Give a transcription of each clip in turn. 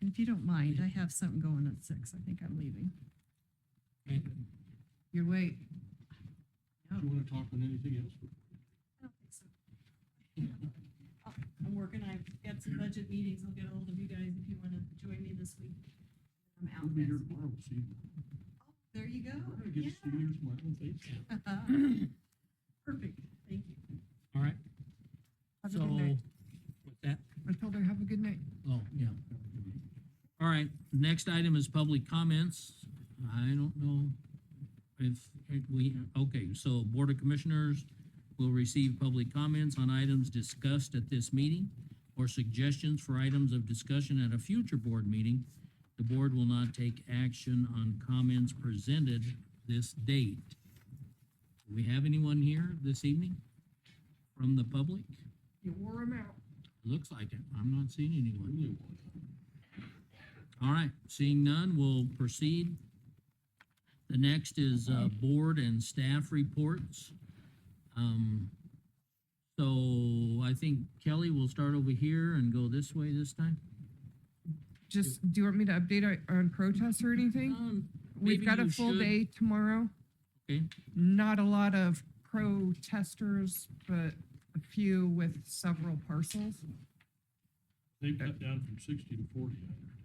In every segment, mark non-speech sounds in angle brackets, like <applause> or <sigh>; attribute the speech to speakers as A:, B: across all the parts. A: if you don't mind, I have something going at six. I think I'm leaving. You're late.
B: Do you want to talk on anything else?
A: I don't think so. I'm working, I've got some budget meetings, I'll get ahold of you guys if you wanna join me this week. I'm out
B: We'll be here
A: next.
B: tomorrow, we'll see. you.
A: Oh, There you go,
B: I get to see
A: yeah.
B: your smile and face.
C: <clears throat>
A: Perfect, thank you.
D: All right,
C: Have a
D: so,
C: good night.
D: with that,
C: I told her, have a good night.
D: oh, yeah. All right, next item is public comments. I don't know if if we, okay, so Board of Commissioners will receive public comments on items discussed at this meeting or suggestions for items of discussion at a future board meeting. The board will not take action on comments presented this date. Do we have anyone here this evening from the public?
C: You wore him out.
D: Looks like it. I'm not seeing anyone.
B: Really want to.
D: All right, seeing none, we'll proceed. The next is uh, board and staff reports. Um, So I think Kelly will start over here and go this way this time.
C: Just, do you want me to update on- on protests or
A: Uh,
C: anything?
D: Um, maybe
C: We've got
D: you
C: a full
D: should.
C: day tomorrow.
D: Okay.
C: Not a lot of protesters, but a few with several parcels.
B: They've cut down from sixty to forty. I heard.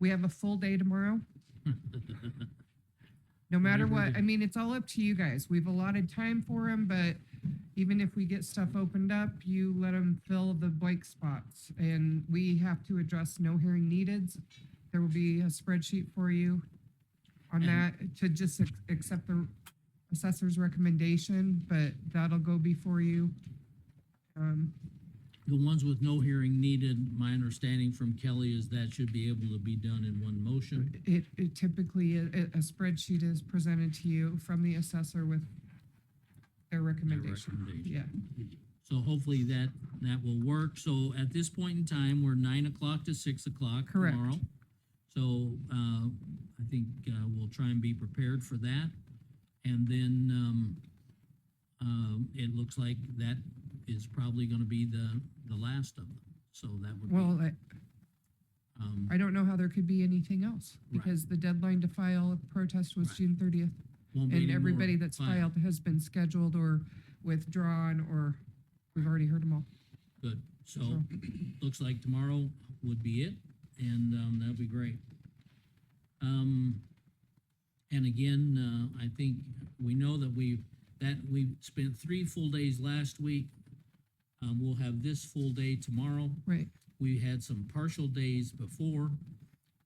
C: We have a full day tomorrow. No matter
D: Whatever
C: what,
D: the-
C: I mean, it's all up to you guys. We've allotted time for them, but even if we get stuff opened up, you let them fill the blank spots. And we have to address no hearing needed. There will be a spreadsheet for you on that
D: And-
C: to just ac- accept the assessor's recommendation, but that'll go before you. Um,
D: The ones with no hearing needed, my understanding from Kelly is that should be able to be done in one motion.
C: It, it typically, a, a spreadsheet is presented to you from the assessor with their
D: Their
C: recommendation.
D: recommendation.
C: Yeah,
D: So hopefully that, that will work. So at this point in time, we're nine o'clock to six o'clock
C: Correct.
D: tomorrow. So, uh, I think, uh, we'll try and be prepared for that. And then, um, um, it looks like that is probably gonna be the, the last of them. So that would be,
C: well, I,
D: um,
C: I don't know how there could be anything else,
D: Right.
C: because the deadline to file a protest was
D: Right.
C: June thirtieth,
D: won't be any
C: and
D: more
C: everybody that's
D: file.
C: filed has been scheduled or withdrawn, or we've already heard them all.
D: Good. So,
C: So-
D: <clears throat> looks like tomorrow would be it, and, um, that'd be great. Um, and again, uh, I think we know that we've, that we spent three full days last week. Um, we'll have this full day tomorrow.
C: Right,
D: We had some partial days before,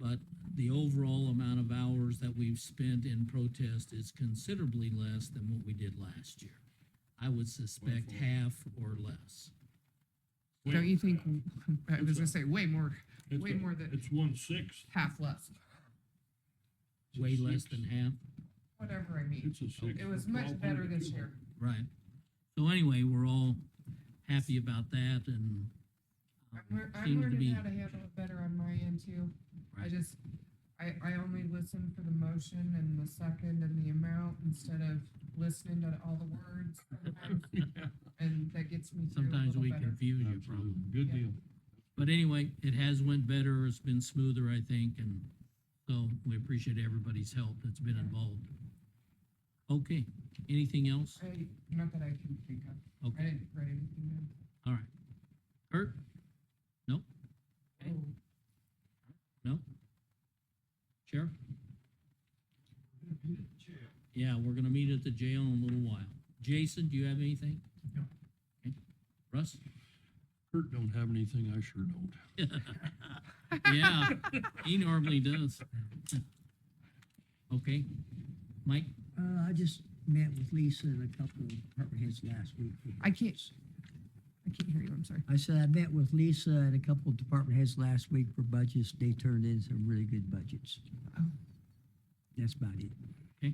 D: but the overall amount of hours that we've spent in protest is considerably less than what we did last year. I would suspect
B: Wonderful.
D: half or less.
B: Way
C: don't you
B: over
C: think,
B: half.
C: I was gonna
B: It's
C: say way more,
B: It's
C: way
B: a-
C: more than-
B: It's one sixth.
C: half less,
B: It's a
D: way less
B: sixth.
D: than half.
C: whatever I mean.
B: It's a
C: It
B: sixth. of
C: was much
B: 1200
C: better this
B: people.
C: year.
D: Right. So anyway, we're all happy about that and um,
C: I'm lear- I'm
D: seems to
C: learning
D: be,
C: how to handle it better on my end too. I
D: Right.
C: just, I, I only listen for the motion and the second and the amount instead of listening to all the
D: <laughs>
C: words. sometimes,
B: <laughs> Yeah,
C: And that gets me through a
D: sometimes
C: little
D: we
C: better.
D: confuse you
B: Absolutely.
D: probably.
B: Good
C: Yeah.
B: deal.
D: But anyway, it has went better, it's been smoother, I think, and so we appreciate everybody's help that's been involved. Okay, anything else?
C: I, not that I can think of. I
D: Okay,
C: didn't write anything down.
D: all right. Kurt? Okay.
C: Oh,
D: No? Sheriff? Yeah, we're gonna meet at the jail in a little while. Jason, do you have anything?
B: No.
D: Okay. Russ?
B: Kurt don't have anything, I sure don't.
D: Yeah, he normally does. Okay, Mike,
E: Uh, I just met with Lisa and a couple of department heads last week.
C: I can't, I can't hear you, I'm sorry.
E: I said I met with Lisa and a couple of department heads last week for budgets. They turned in some really good budgets.
C: Oh.
E: That's about it.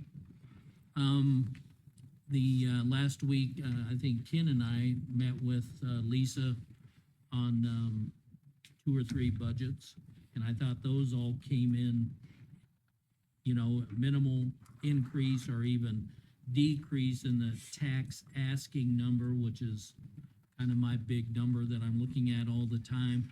D: um, the, uh, last week, uh, I think Ken and I met with, uh, Lisa on, um, two or three budgets, and I thought those all came in, you know, minimal increase or even decrease in the tax asking number, which is kind of my big number that I'm looking at all the time.